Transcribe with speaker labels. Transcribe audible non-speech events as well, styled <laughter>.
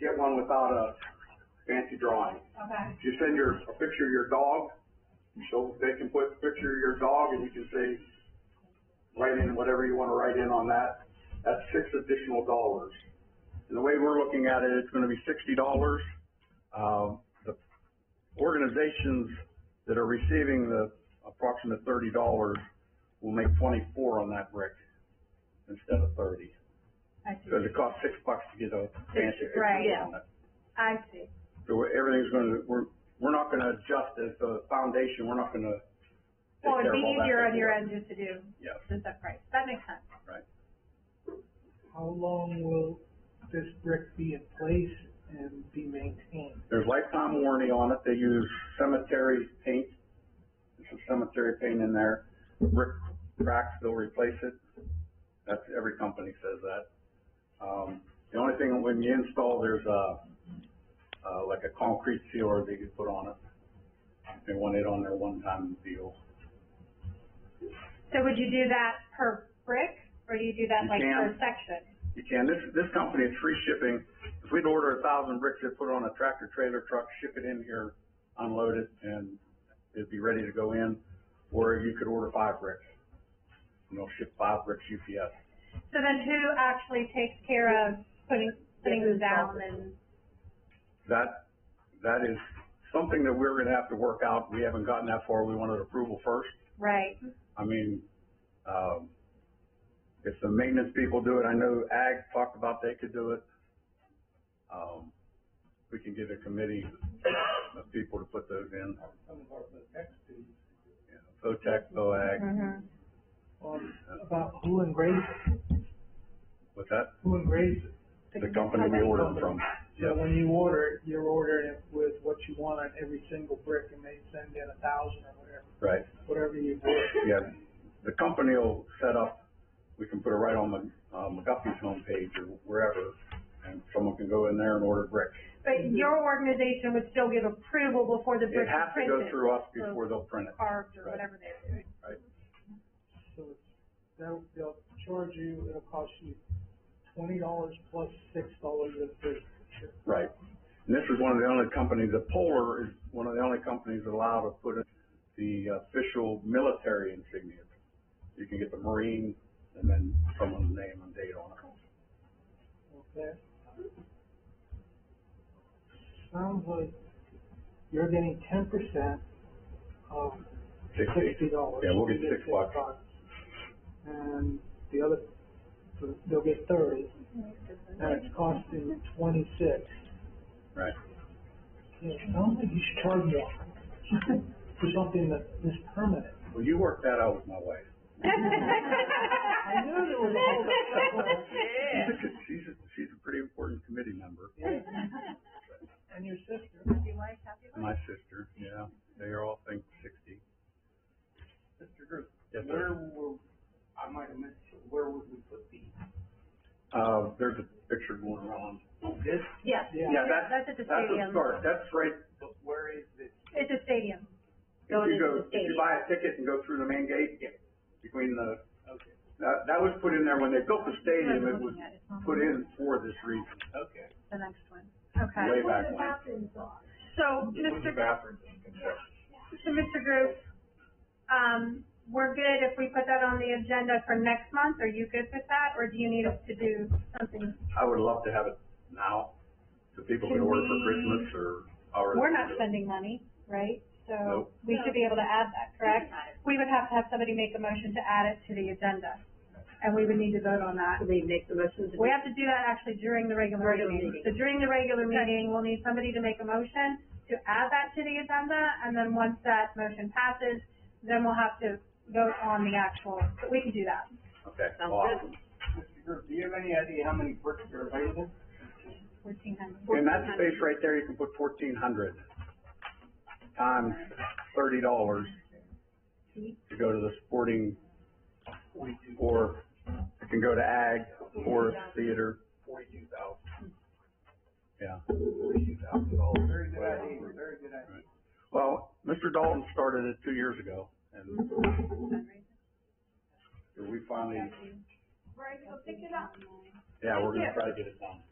Speaker 1: get one without a fancy drawing.
Speaker 2: Okay,
Speaker 1: If you send your, a picture of your dog, so they can put a picture of your dog and you can say, write in whatever you wanna write in on that, that's six additional dollars. And the way we're looking at it, it's gonna be sixty dollars. Um, the organizations that are receiving the approximate thirty dollars will make twenty-four on that brick instead of thirty.
Speaker 2: I see.
Speaker 1: Cause it costs six bucks to get a fancy picture
Speaker 2: Right.
Speaker 1: on it.
Speaker 2: I see.
Speaker 1: So we're- everything's gonna, we're, we're not gonna adjust as the foundation, we're not gonna. take
Speaker 2: Well,
Speaker 1: care
Speaker 2: it'd
Speaker 1: of
Speaker 2: be
Speaker 1: all that
Speaker 2: easier on your
Speaker 1: paperwork.
Speaker 2: end just to do
Speaker 1: Yes,
Speaker 2: the set price. That makes sense.
Speaker 1: right.
Speaker 3: How long will this brick be in place and be maintained?
Speaker 1: There's lifetime warranty on it, they use cemetery paint, there's some cemetery paint in there, brick cracks, they'll replace it. That's, every company says that. Um, the only thing, when you install, there's a, uh, like a concrete sealer that you put on it. They want it on their one-time deal.
Speaker 2: So would you do that per brick or do you do that
Speaker 1: You
Speaker 2: like per
Speaker 1: can.
Speaker 2: section?
Speaker 1: You can, this, this company, it's free shipping. If we'd order a thousand bricks, they'd put it on a tractor trailer truck, ship it in here, unload it, and it'd be ready to go in. Or you could order five bricks. And they'll ship five bricks UPS.
Speaker 2: So then who actually takes care of putting, putting them down and,
Speaker 1: That, that is something that we're gonna have to work out. We haven't gotten that far. We wanted approval first.
Speaker 2: right?
Speaker 1: I mean, um, if the maintenance people do it, I know Ag talked about they could do it. Um, we can get a committee of people to put those in,
Speaker 3: Some of our ex do.
Speaker 1: you know, VOTEC, VOAG,
Speaker 2: Mhm.
Speaker 3: Um, about who engraves, it?
Speaker 1: with that,
Speaker 3: who engraves it?
Speaker 1: the company we ordered from.
Speaker 3: So
Speaker 1: Yep.
Speaker 3: when you order it, you're ordering it with what you want on every single brick and they send in a thousand or whatever,
Speaker 1: Right,
Speaker 3: whatever you do.
Speaker 1: yeah, the company will set up, we can put it right on the, uh, McGuffey's homepage or wherever, and someone can go in there and order bricks.
Speaker 2: But your organization would still give approval before the
Speaker 1: Mm-hmm. It
Speaker 2: bricks
Speaker 1: has to
Speaker 2: are
Speaker 1: go
Speaker 2: printed,
Speaker 1: through us before they'll print it,
Speaker 2: carved or
Speaker 1: Right.
Speaker 2: whatever they're doing.
Speaker 1: right?
Speaker 3: So it's, they'll, they'll charge you, it'll cost you twenty dollars plus six dollars of food.
Speaker 1: Right. And this is one of the only companies, the Polar is one of the only companies allowed to put in the official military insignia. You can get the Marine and then someone's name and date on it.
Speaker 3: Okay. Sounds like you're getting ten percent of
Speaker 1: Sixty.
Speaker 3: sixty dollars.
Speaker 1: Yeah, we'll get six bucks.
Speaker 3: And the other, they'll get thirty, and it's costing twenty-six.
Speaker 1: Right.
Speaker 3: Yeah, sounds like you should charge more <laughs> for something that is permanent.
Speaker 1: Well, you work that out with my wife.
Speaker 3: <laughs> I knew there was a whole.
Speaker 2: <laughs>
Speaker 1: She's a, good- she's a, she's a pretty important committee member.
Speaker 3: Yeah. And your sister.
Speaker 2: Happy wife, happy life.
Speaker 1: My sister, yeah, they all think sixty.
Speaker 4: Mr. Drew,
Speaker 1: Yes, sir.
Speaker 4: where will, I might have missed, it, where would we put these?
Speaker 1: Uh, there's a picture going around.
Speaker 4: This,
Speaker 2: Yes,
Speaker 3: Yeah.
Speaker 1: Yeah, that's,
Speaker 2: that's at the
Speaker 1: that's a
Speaker 2: stadium.
Speaker 1: start. That's right
Speaker 4: but where is this?
Speaker 2: It's a stadium.
Speaker 1: If you go, if you buy a ticket and go through the main gate, between the,
Speaker 4: Okay,
Speaker 1: that, that was put in there when they built the stadium, it was put in for this reason,
Speaker 4: okay.
Speaker 2: The next one.
Speaker 1: way
Speaker 2: Okay.
Speaker 1: back when.
Speaker 2: So,
Speaker 4: It was the
Speaker 2: Mr.
Speaker 4: bathroom construction.
Speaker 2: So, Mr. Group, um, we're good if we put that on the agenda for next month, are you good with that, or do you need us to do something?
Speaker 1: I would love to have it now, so people can order for Christmas or already.
Speaker 2: We're not spending money, right? So,
Speaker 1: Nope.
Speaker 2: we should be able to add that, correct? We would have to have somebody make a motion to add it to the agenda, and we would need to vote on that.
Speaker 5: So They make the motion to.
Speaker 2: We have to do that actually during the regular
Speaker 5: Regular
Speaker 2: meeting.
Speaker 5: meeting.
Speaker 2: So during the regular meeting, we'll need somebody to make a motion to add that to the agenda, and then once that motion passes, then we'll have to vote on the actual, but we can do that.
Speaker 1: Okay,
Speaker 5: Sounds
Speaker 1: awesome.
Speaker 4: Mr. Drew, do you have any idea how many bricks are available?
Speaker 2: Fourteen hundred.
Speaker 1: In that space right there, you can put fourteen hundred times thirty dollars to go to the sporting,
Speaker 4: Forty-two,
Speaker 1: or it can go to ag, forest, theater,
Speaker 4: forty-two thousand,
Speaker 1: yeah.
Speaker 4: forty-two thousand dollars. Very good idea, very good idea.
Speaker 1: Well, Mr. Dalton started it two years ago, and we finally,
Speaker 2: Right, go pick it up.
Speaker 1: yeah, we're gonna try to get it done.